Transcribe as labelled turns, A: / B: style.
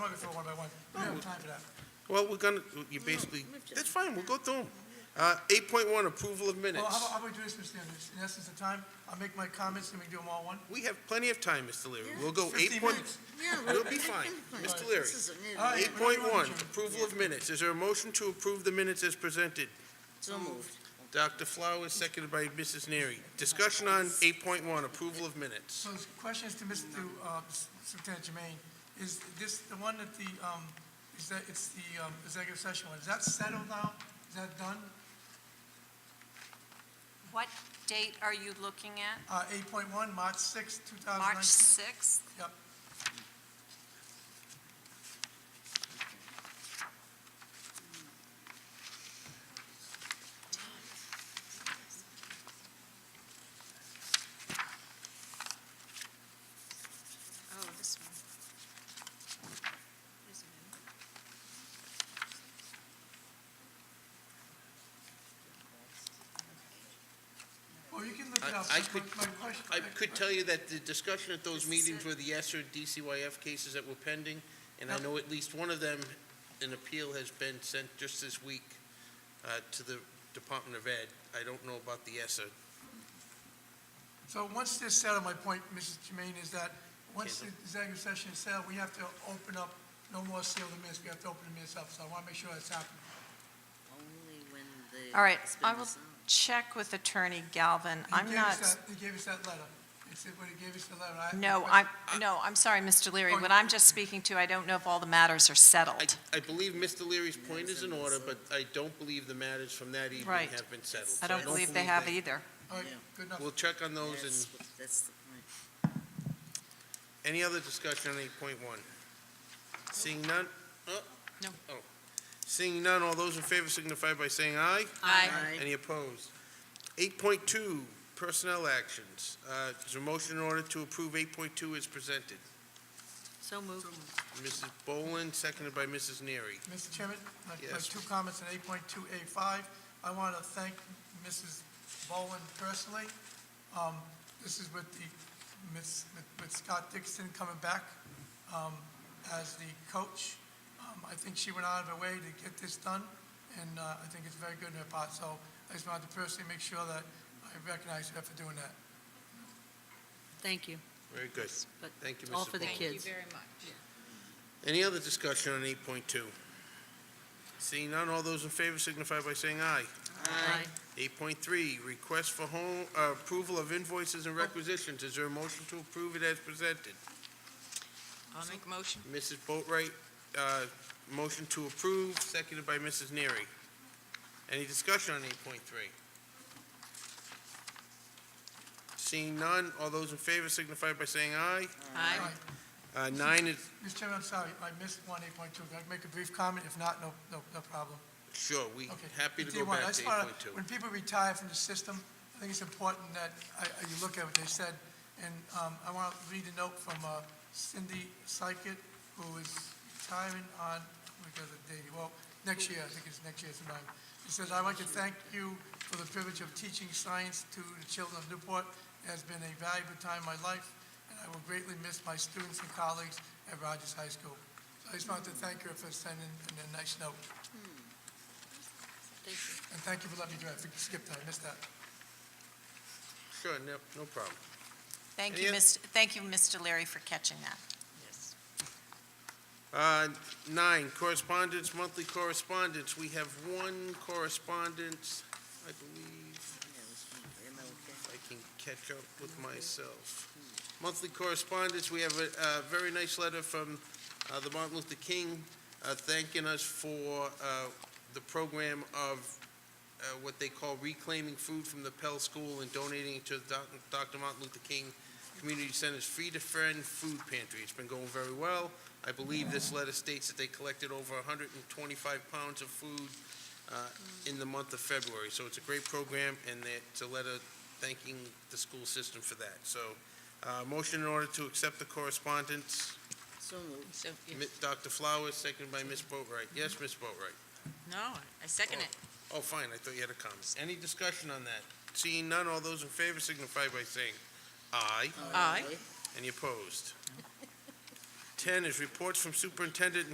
A: through one by one. We don't have time for that.
B: Well, we're gonna, you basically, that's fine, we'll go through them. Uh, eight point one, approval of
A: Well, how
B: minutes.
A: about, how about we do this, Mr. Anderson? In essence of time, I'll make my comments, and we do them all one.
B: We have plenty of time, Mr. Leary. We'll go eight
A: 15
B: point,
A: oh. minutes.
C: Yeah,
B: We'll be fine. Mr. Leary.
C: This is a new
A: All right.
C: one.
B: eight point one, approval of minutes. Is there a motion to approve the minutes as presented?
C: So moved.
B: Dr. Flowers, seconded by Mrs. Neary. Discussion on eight point one, approval of minutes.
A: So the question is to Mr. uh, S- Lieutenant Jermaine, is this the one that the, um, is that, it's the um, executive session one, is that settled now? Is that done?
D: What date are you looking at?
A: Uh, eight point one, March sixth, two thousand nineteen?
D: March 6th?
A: Yep.
D: Oh, this one.
A: Well, you can look it
B: I-
A: up.
B: I
A: My-
B: could-
A: my question-
B: I could tell you that the discussion at those meetings were the ESER DCYF cases that were pending, and I know at least one of them, an appeal has been sent just this week uh, to the Department of Ed. I don't know about the ESER.
A: So once this settled, my point, Mrs. Jermaine, is that once the
B: Okay.
A: executive session is settled, we have to open up, no more seal the minutes, we have to open the minutes up, so I want to make sure that's happening.
C: Only when the.
E: All right,
C: it's been
E: I will
C: resolved.
E: check with Attorney Galvin.
A: He
E: I'm
A: gave us
E: not,
A: that- He gave us that letter. It's when he gave us the letter. I-
E: no, I, no, I'm sorry, Mr. Leary. What I'm just speaking to, I don't know if all the matters are
B: I,
E: settled.
B: I believe Mr. Leary's point is in order, but I don't believe the matters from that evening
E: Right.
B: have been settled. so
E: I don't believe they have
B: they-
E: either.
A: All right, good enough.
B: We'll check on those and
C: That's what- That's the point.
B: any other discussion on eight point one? Seeing none? Oh.
E: No.
B: Oh. Seeing none, all those in favor signify by saying aye.
C: Aye.
B: Any opposed? Eight point two, personnel actions. Uh, Is there a motion in order to approve eight point two as presented?
C: So moved.
B: Mrs. Boland, seconded by Mrs. Neary.
A: Mr. Chairman, my, my
B: Yes.
A: two comments on eight point two A five. I want to thank Mrs. Bowen personally. Um, this is with the, Miss, with- with Scott Dixon coming back, um, as the coach. Um, I think she went out of her way to get this done, and, uh, I think it's very good in her part, so I just wanted to personally make sure that I recognize her for doing that.
C: Thank you.
B: Very good.
C: But
B: Thank you,
C: all
B: Mrs.
C: for the
B: Boland.
C: kids.
B: Any other discussion on eight point two? Seeing none, all those in favor signify by saying aye.
C: Aye.
B: Eight point three, request for home, uh, approval of invoices and requisitions. Is there a motion to approve it as presented?
D: I'll make a motion.
B: Mrs. Boatright, uh, motion to approve, seconded by Mrs. Neary. Any discussion on eight point three? Seeing none, all those in favor signify by saying aye.
A: All right.
B: Uh, nine is,
A: Mr. Chairman, I'm sorry, I missed one eight point two. Can I make a brief comment? If not, no, no, no problem.
B: sure, we
A: Okay.
B: happy to
A: Tell you
B: go
A: what, I
B: back to
A: just
B: eight
A: wanna-
B: point two.
A: When people retire from the system, I think it's important that I- I- you look at what they said. And um, I want to read a note from uh, Cindy Sykett, who is retiring on, oh because of date, well, next year, I think it's next year's time. She says, "I'd like to thank you for the privilege of teaching science to the children of Newport. It has been a valuable time in my life, and I will greatly miss my students and colleagues at Rogers High School." So I just wanted to thank her for sending a nice note.
C: Thank you.
A: And thank you for letting me do that. I skipped that, I missed that.
B: Sure, no, no problem.
E: Thank
B: Any
E: you,
B: oth-
E: Mr., thank you, Mr. Leary, for catching that.
C: Yes.
B: Uh, Nine, correspondence, monthly correspondence. We have one correspondence, I believe,
C: That was me. Am I okay?
B: if I can catch up with myself. Monthly correspondence, we have a a very nice letter from uh, the Martin Luther King uh, thanking us for uh, the program of uh, what they call reclaiming food from the Pell School and donating it to the Doc- Dr. Martin Luther King Community Center's Free to Friend Food Pantry. It's been going very well. I believe this letter states that they collected over 125 pounds of food uh, in the month of February. So it's a great program, and that- it's a letter thanking the school system for that. So, uh, motion in order to accept the correspondence,
C: So moved.
F: So, you-
B: Mi- Dr. Flowers, seconded by Ms. Boatright. Yes, Ms. Boatright?
F: no, I second it.
B: Oh, fine, I thought you had a comment. Any discussion on that? Seeing none, all those in favor signify by saying aye.
F: Aye.
B: Any opposed? Ten is reports from superintendent and